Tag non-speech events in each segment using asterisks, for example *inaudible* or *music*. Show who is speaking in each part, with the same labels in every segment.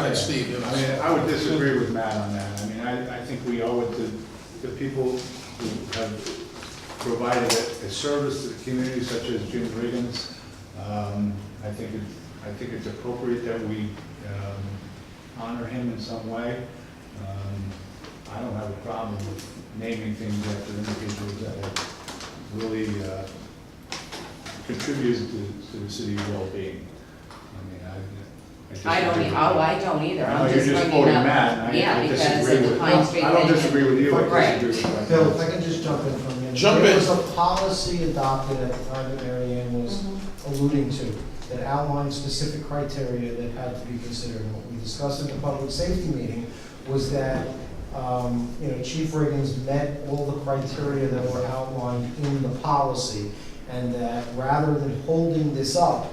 Speaker 1: Right, Steve, you
Speaker 2: I mean,
Speaker 1: know,
Speaker 2: I would disagree with Matt on that. I mean, I, I think we owe it to the people who have provided a a service to the community such as Jim Riggins. Um, I think it, I think it's appropriate that we um, honor him in some way. Um, I don't have a problem with naming things after individuals that have really uh, contributed to, to the city's well-being. I mean, I- I. just-
Speaker 3: I don't, e- oh, I don't either,
Speaker 2: I know
Speaker 3: I'm
Speaker 2: you're
Speaker 3: just
Speaker 2: just
Speaker 3: bringing
Speaker 2: quoting
Speaker 3: up.
Speaker 2: Matt, and I- I
Speaker 3: Yeah, because
Speaker 2: disagree
Speaker 3: of
Speaker 2: with,
Speaker 3: the Pine Street thing.
Speaker 2: I don't disagree with you, I
Speaker 3: Right.
Speaker 2: disagree with
Speaker 4: Bill, if I can just jump in for a minute.
Speaker 1: Jump
Speaker 4: There
Speaker 1: in.
Speaker 4: was a policy adopted at the time that Mary Ann was alluding to that outlined specific criteria that had to be considered. And What we discussed at the public safety meeting was that, um, you know, Chief Riggins met all the criteria that were outlined in the policy. And that rather than holding this up,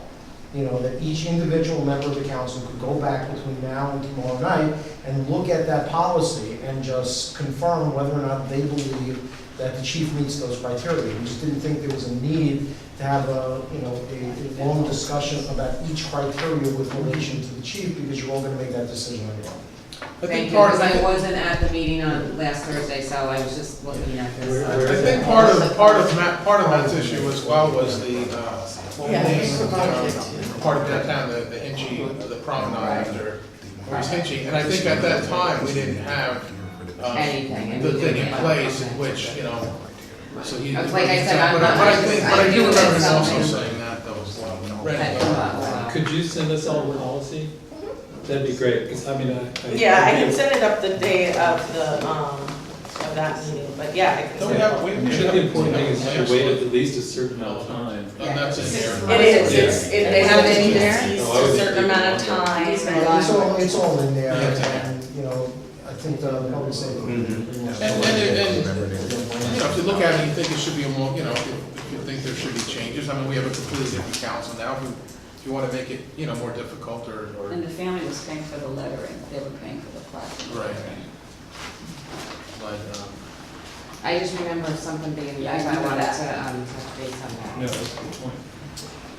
Speaker 4: you know, that each individual member of the council could go back between now and tomorrow night and look at that policy and just confirm whether or not they believe that the chief meets those criteria. We just didn't think there was a need to have a, you know, a a long discussion about each criteria with relation to the chief, because you're all gonna make that decision on your own.
Speaker 1: I
Speaker 3: Thank
Speaker 1: think
Speaker 3: you,
Speaker 1: part of
Speaker 3: because
Speaker 1: that.
Speaker 3: I wasn't at the meeting on last Thursday, so I was just looking at this.
Speaker 2: Where-
Speaker 3: uh,
Speaker 2: where
Speaker 1: I think part of, part of Matt, part of Matt's issue as well was the, uh, whole
Speaker 5: Yeah,
Speaker 1: name,
Speaker 5: it's the
Speaker 1: uh, part of downtown, the, the Hinchy, the promenade after, it was Hinchy, and I think at that time, we didn't have, uh,
Speaker 3: Anything,
Speaker 1: the thing in
Speaker 3: anything.
Speaker 1: place, in which, you know, so he.
Speaker 3: Like I said, I'm
Speaker 1: But I- But I
Speaker 3: not-
Speaker 1: think,
Speaker 3: I
Speaker 1: but I do
Speaker 3: do
Speaker 1: remember him also
Speaker 3: something.
Speaker 1: saying that, though, as well.
Speaker 3: at the level.
Speaker 6: Could you send us all the policy? That'd be great, because I mean, I.
Speaker 5: Yeah, I can send it up the day of the, um, of that meeting, but yeah, I can
Speaker 1: Don't we
Speaker 5: send it.
Speaker 1: have, we
Speaker 6: I
Speaker 1: we should
Speaker 6: think
Speaker 1: have.
Speaker 6: the important thing is you should wait
Speaker 1: And
Speaker 6: at least a certain amount of time.
Speaker 1: that's in here.
Speaker 5: It is, it's, it, they have it in there,
Speaker 6: Yeah.
Speaker 5: it's a certain amount of time.
Speaker 4: It's all, it's all in there,
Speaker 1: Yeah, it's in there.
Speaker 4: and, you know, I think the public safety.
Speaker 1: And, and, and, you know, if you look at it, you think it should be a more, you know, if you if you think there should be changes, I mean, we have a completely different council now, if you, if you wanna make it, you know, more difficult or, or,
Speaker 7: And the family was paying for the lettering, they were paying for the plaque.
Speaker 1: Right. like, um,
Speaker 3: I just remember something being,
Speaker 7: Yeah, I
Speaker 3: if I
Speaker 7: remember
Speaker 3: wanted
Speaker 7: that.
Speaker 3: to, um, touch base on
Speaker 6: No,
Speaker 3: that.
Speaker 6: that's a good point.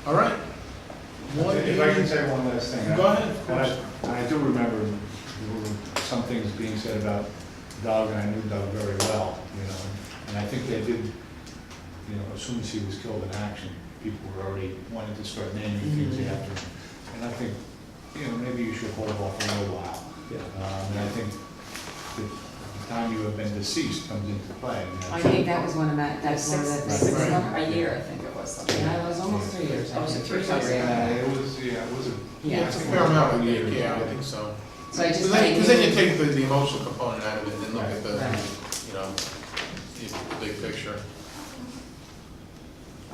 Speaker 1: all right. One
Speaker 2: that. If I can
Speaker 1: is-
Speaker 2: say one last thing. I-
Speaker 1: Go ahead, of
Speaker 2: And I,
Speaker 1: course.
Speaker 2: and I do remember there were some things being said about Doug, and I knew Doug very well, you know, and I think they did, you know, as soon as he was killed in action, people were already wanting to start naming things
Speaker 3: Mm-hmm.
Speaker 2: after him. And I think, you know, maybe you should hold off a little while.
Speaker 6: Yeah.
Speaker 2: Um, and I think the- the time you have been deceased comes into play. and that's-
Speaker 3: I think that was one of my, that's one of the
Speaker 7: Six,
Speaker 3: things.
Speaker 7: six,
Speaker 3: Yeah,
Speaker 7: a year, I think it was something.
Speaker 3: it was almost three years. I
Speaker 7: Oh, was it
Speaker 3: think.
Speaker 7: three years?
Speaker 3: Sorry about
Speaker 2: Uh,
Speaker 3: that.
Speaker 2: It was, yeah, it was a.
Speaker 3: Yeah.
Speaker 1: Yeah, it's a fair amount, I think, yeah, I think so.
Speaker 3: So I
Speaker 1: Cause
Speaker 3: just.
Speaker 1: then, 'cause then you take the, the emotional component out of it and look at the,
Speaker 3: Right.
Speaker 1: you know, the big picture.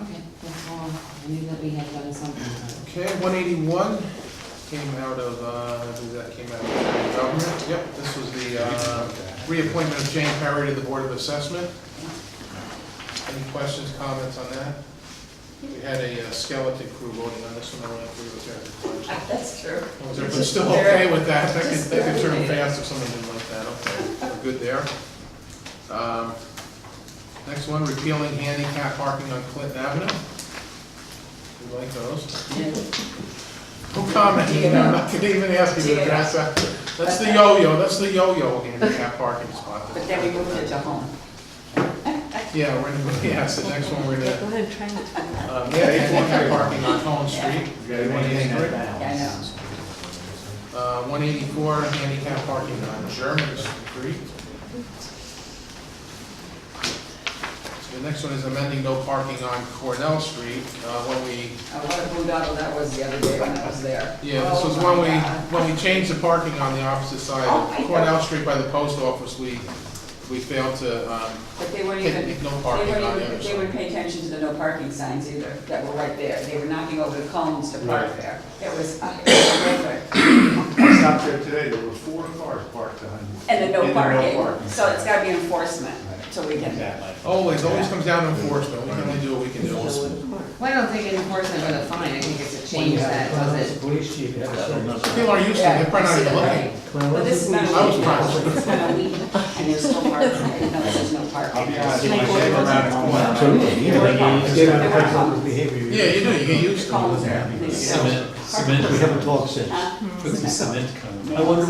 Speaker 3: Okay, that's all, I knew that we had done something.
Speaker 1: Okay, one eighty-one came out of, uh, I believe that came out of government. Yep, this was the, uh, reappointment of Jane Perry to the Board of Assessment. Any questions, comments on that? We had a uh, skeleton crew voting on this one, I don't know if we were there.
Speaker 7: *laughs* That's true.
Speaker 1: Was everyone still okay with that? That could, that could turn fast if someone didn't like that, okay, we're good there. Um, Next one, repealing handicap parking on Clinton Avenue. We like those. No comment,
Speaker 7: Dig it
Speaker 1: I'm *laughs* not
Speaker 7: up.
Speaker 1: gonna even ask you
Speaker 7: Dig
Speaker 1: to
Speaker 7: it
Speaker 1: address that. That's the yo-yo, that's the yo-yo handicap parking spot.
Speaker 7: But then we moved it to home.
Speaker 1: Yeah, we're gonna, yeah, so next one, we're gonna,
Speaker 5: ahead, try not to.
Speaker 1: uh, yeah, handicap parking on Collins Street.
Speaker 2: You gotta maintain that balance.
Speaker 7: Yeah, I know.
Speaker 1: Uh, 184 handicap parking on German Street. So the next one is amending no parking on Cornell Street. Uh, When we,
Speaker 7: Uh, what a boondoggle that was the other day when I was there.
Speaker 1: yeah, this was
Speaker 7: Oh,
Speaker 1: when
Speaker 7: my
Speaker 1: we,
Speaker 7: God.
Speaker 1: when we changed the parking on the opposite side
Speaker 7: Oh, I
Speaker 1: of
Speaker 7: know.
Speaker 1: Cornell Street by the post office, we, we failed to, um,
Speaker 7: But they weren't even, they
Speaker 1: take no
Speaker 7: weren't
Speaker 1: parking on the
Speaker 7: even,
Speaker 1: other
Speaker 7: they wouldn't
Speaker 1: side.
Speaker 7: pay attention to the no parking signs either, that were right there. They were knocking over the columns to park
Speaker 2: Right.
Speaker 7: there. It was uh, it was horrific.
Speaker 2: I stopped there today, there were four cars parked on.
Speaker 7: And then no
Speaker 2: in the
Speaker 7: parking, so it's gotta be enforcement, so we can.
Speaker 2: Exactly.
Speaker 1: always, Oh, always comes down to enforcement. We can only do what we can do.
Speaker 3: Well, I don't think enforcement with a fine, I think it's a change that doesn't.
Speaker 4: Police chief,
Speaker 1: People are used to it, they're probably not even looking.
Speaker 7: But this is not
Speaker 1: I was
Speaker 7: a
Speaker 1: surprised.
Speaker 7: week, it's not a week, and there's still parking, I didn't know there's no parking.
Speaker 2: I'll be honest, when I came around the corner, I was
Speaker 1: Yeah, you do, you get used to it.
Speaker 7: Columns there.
Speaker 6: Cement, cement.
Speaker 4: We haven't talked since.
Speaker 7: Huh?
Speaker 6: Put some cement kind I wonder